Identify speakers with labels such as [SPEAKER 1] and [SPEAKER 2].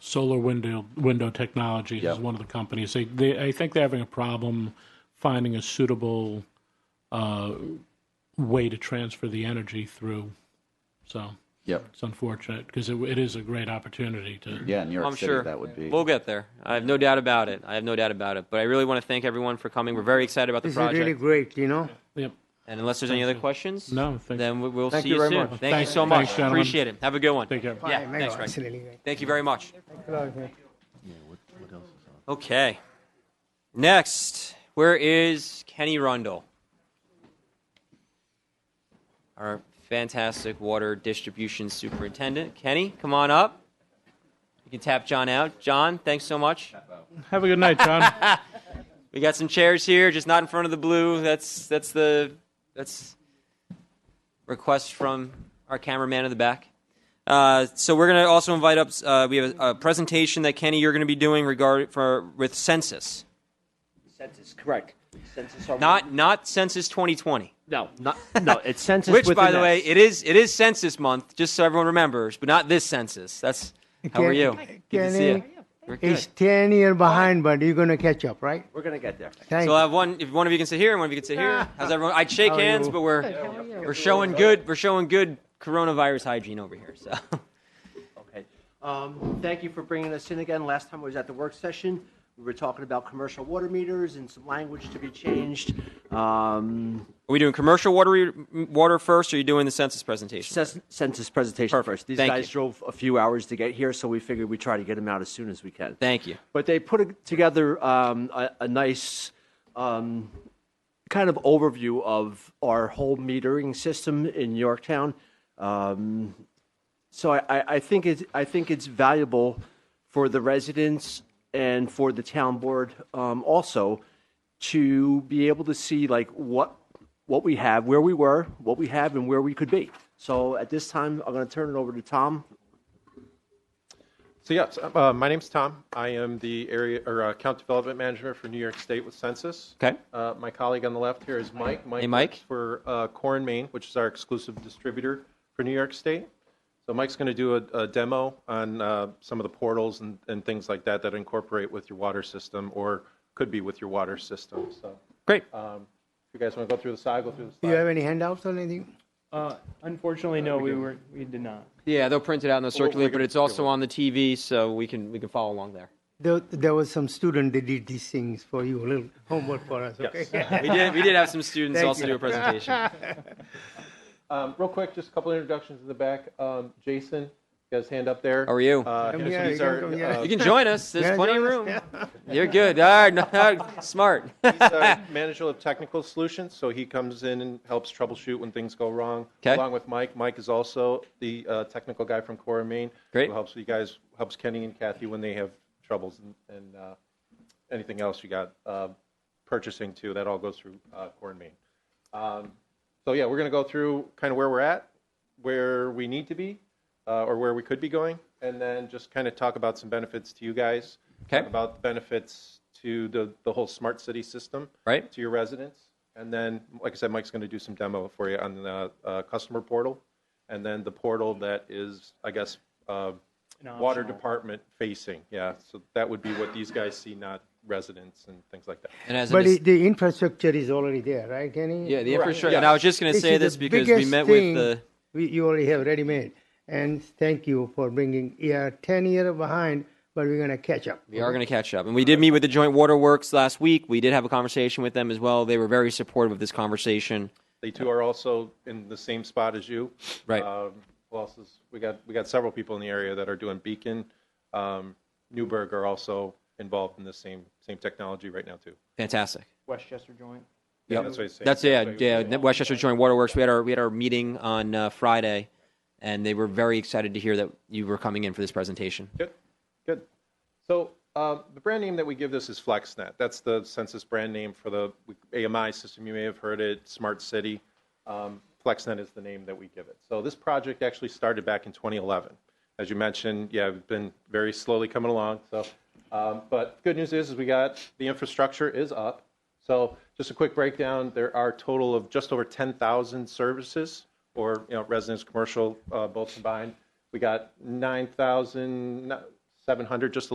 [SPEAKER 1] solar window window technology
[SPEAKER 2] Yeah.
[SPEAKER 1] is one of the companies. They, they I think they're having a problem finding a suitable uh, way to transfer the energy through. So
[SPEAKER 2] Yep.
[SPEAKER 1] it's unfortunate because it, it is a great opportunity to.
[SPEAKER 2] Yeah, New York
[SPEAKER 3] I'm
[SPEAKER 2] City,
[SPEAKER 3] sure
[SPEAKER 2] that would be.
[SPEAKER 3] We'll get there. I have no doubt about it. I have no doubt about it. But I really want to thank everyone for coming. We're very excited about the
[SPEAKER 4] This is
[SPEAKER 3] project.
[SPEAKER 4] really great, you know?
[SPEAKER 1] Yep.
[SPEAKER 3] and unless there's any other questions,
[SPEAKER 1] No, thank-
[SPEAKER 3] then we- we'll
[SPEAKER 2] Thank
[SPEAKER 3] see
[SPEAKER 2] you
[SPEAKER 3] you,
[SPEAKER 2] very
[SPEAKER 3] soon.
[SPEAKER 2] much.
[SPEAKER 3] Thank
[SPEAKER 1] Thank-
[SPEAKER 3] you so much.
[SPEAKER 1] thanks, gentlemen.
[SPEAKER 3] Appreciate it. Have a good one.
[SPEAKER 1] Take care.
[SPEAKER 3] Yeah,
[SPEAKER 4] Fine,
[SPEAKER 3] thanks,
[SPEAKER 4] no,
[SPEAKER 3] Greg.
[SPEAKER 4] It's really great.
[SPEAKER 3] Thank you very much.
[SPEAKER 4] Thanks a lot, man.
[SPEAKER 3] Okay. Next, where is Kenny Rundle? Our fantastic water distribution superintendent. Kenny, come on up. You can tap John out. John, thanks so much.
[SPEAKER 1] Have a good night, John.
[SPEAKER 3] We got some chairs here, just not in front of the blue. That's that's the that's request from our cameraman in the back. Uh, so we're gonna also invite up. Uh, we have a, a presentation that Kenny you're gonna be doing regard for with census,
[SPEAKER 5] Census, correct. Census are
[SPEAKER 3] not not census 2020.
[SPEAKER 5] no, not no. It's census.
[SPEAKER 3] Which,
[SPEAKER 5] with
[SPEAKER 3] by
[SPEAKER 5] an
[SPEAKER 3] the way,
[SPEAKER 5] S.
[SPEAKER 3] it is it is census month, just so everyone remembers, but not this census. That's how are
[SPEAKER 4] Kenny-
[SPEAKER 3] you? Good to see you.
[SPEAKER 4] Kenny
[SPEAKER 3] We're good.
[SPEAKER 4] It's 10 year behind, but you're going to catch up, right?
[SPEAKER 5] we're gonna get there.
[SPEAKER 4] Thank
[SPEAKER 3] So I'll have one. If one of you can sit here, and one of you can sit here. How's everyone? I'd shake
[SPEAKER 4] How are
[SPEAKER 3] hands,
[SPEAKER 4] you?
[SPEAKER 3] but we're we're showing good. We're showing good coronavirus hygiene over here. So
[SPEAKER 5] Okay. Um, thank you for bringing us in again. Last time I was at the work session, we were talking about commercial water meters and some language to be changed. Um,
[SPEAKER 3] are we doing commercial water water first, or are you doing the census presentation?
[SPEAKER 5] cens- census presentation
[SPEAKER 3] Perfect.
[SPEAKER 5] first. These
[SPEAKER 3] Thank
[SPEAKER 5] guys
[SPEAKER 3] you.
[SPEAKER 5] drove a few hours to get here, so we figured we would try to get them out as soon as we can.
[SPEAKER 3] Thank you.
[SPEAKER 5] But they put a- together um, a, a nice um, kind of overview of our whole metering system in Yorktown. Um, so I, I, I think it's I think it's valuable for the residents and for the town board um, also to be able to see like what what we have, where we were, what we have, and where we could be. So at this time, I'm going to turn it over to Tom.
[SPEAKER 6] So yes, uh, my name's Tom. I am the area or uh, account development manager for New York State with Census.
[SPEAKER 3] Okay.
[SPEAKER 6] Uh, my colleague on the left here is Mike. Mike
[SPEAKER 3] Hey, Mike.
[SPEAKER 6] works for uh, Core and Maine, which is our exclusive distributor for New York State. So Mike's going to do a, a demo on uh, some of the portals and, and things like that that incorporate with your water system or could be with your water system. So
[SPEAKER 3] Great.
[SPEAKER 6] um, if you guys want to go through the slide, go through the
[SPEAKER 4] you.
[SPEAKER 6] slide.
[SPEAKER 4] You have any handouts or anything?
[SPEAKER 7] Uh, unfortunately, no, we were, we did not.
[SPEAKER 3] Yeah, they'll print it
[SPEAKER 4] Oh,
[SPEAKER 3] out and they'll
[SPEAKER 6] Well, we're
[SPEAKER 3] circulate, but
[SPEAKER 6] gonna
[SPEAKER 3] it's
[SPEAKER 6] do
[SPEAKER 3] also
[SPEAKER 6] it.
[SPEAKER 3] on the TV, so we can we can follow along there.
[SPEAKER 4] There, there was some student that did these things for you, a little homework for us, okay?
[SPEAKER 3] We did we did have some students
[SPEAKER 4] Thank
[SPEAKER 3] also
[SPEAKER 4] you.
[SPEAKER 3] do a presentation.
[SPEAKER 6] Um, real quick, just a couple introductions in the back. Um, Jason, you got his hand up there.
[SPEAKER 3] How are you?
[SPEAKER 6] Uh,
[SPEAKER 4] Come
[SPEAKER 6] he's
[SPEAKER 4] here, you
[SPEAKER 6] he's
[SPEAKER 4] can
[SPEAKER 6] our,
[SPEAKER 4] come here.
[SPEAKER 6] uh,
[SPEAKER 3] You can join us. There's
[SPEAKER 4] Yeah,
[SPEAKER 3] plenty of
[SPEAKER 4] join us,
[SPEAKER 3] room. You're good. All right, smart.
[SPEAKER 6] He's our manager of technical solutions, so he comes in and helps troubleshoot when things go wrong.
[SPEAKER 3] 'Kay.
[SPEAKER 6] Along with Mike, Mike is also the uh, technical guy from Core Maine.
[SPEAKER 3] Great.
[SPEAKER 6] Who helps you guys, helps Kenny and Kathy when they have troubles and, and uh, anything else you got uh, purchasing too. That all goes through uh, Core Maine. Um, so yeah, we're going to go through kind of where we're at, where we need to be, uh, or where we could be going, and then just kind of talk about some benefits to you guys.
[SPEAKER 3] Okay.
[SPEAKER 6] Talk about the benefits to the, the whole smart city system.
[SPEAKER 3] Right.
[SPEAKER 6] To your residents, and then, like I said, Mike's going to do some demo for you on the uh, customer portal, and then the portal that is, I guess, uh,
[SPEAKER 7] An
[SPEAKER 6] water
[SPEAKER 7] optional.
[SPEAKER 6] department facing. Yeah. So that would be what these guys see, not residents and things like that.
[SPEAKER 3] And as a
[SPEAKER 4] But
[SPEAKER 3] dis-
[SPEAKER 4] it- the infrastructure is already there, right, Kenny?
[SPEAKER 3] yeah, the infrastructure.
[SPEAKER 6] yeah.
[SPEAKER 3] And I was just going to
[SPEAKER 4] This
[SPEAKER 3] say
[SPEAKER 4] is the
[SPEAKER 3] this because we
[SPEAKER 4] biggest
[SPEAKER 3] met
[SPEAKER 4] thing
[SPEAKER 3] with the
[SPEAKER 4] we- You already have ready-made, and thank you for bringing, yeah, 10 year behind, but we're going to catch up.
[SPEAKER 3] We are going to catch up. And we did meet with the Joint Waterworks last week. We did have a conversation with them as well. They were very supportive of this conversation.
[SPEAKER 6] They too are also in the same spot as you.
[SPEAKER 3] Right.
[SPEAKER 6] Um, who else is, we got, we got several people in the area that are doing Beacon. Um, Newburgh are also involved in the same, same technology right now too.
[SPEAKER 3] Fantastic.
[SPEAKER 7] Westchester joint.
[SPEAKER 6] Yeah,
[SPEAKER 3] Yep.
[SPEAKER 6] That's what he's saying.
[SPEAKER 3] That's yeah,
[SPEAKER 6] what he's
[SPEAKER 3] yeah.
[SPEAKER 6] saying.
[SPEAKER 3] Westchester Joint Waterworks. We had our we had our meeting on uh, Friday, and they were very excited to hear that you were coming in for this presentation.
[SPEAKER 6] Good, good. So um, the brand name that we give this is FlexNet. That's the census brand name for the AMI system. You may have heard it, Smart City. Um, FlexNet is the name that we give it. So this project actually started back in 2011. As you mentioned, yeah, we've been very slowly coming along. So, um, but good news is, is we got the infrastructure is up. So just a quick breakdown, there are a total of just over 10,000 services or, you know, residence, commercial, uh, both combined. We got 9,000, 700, just a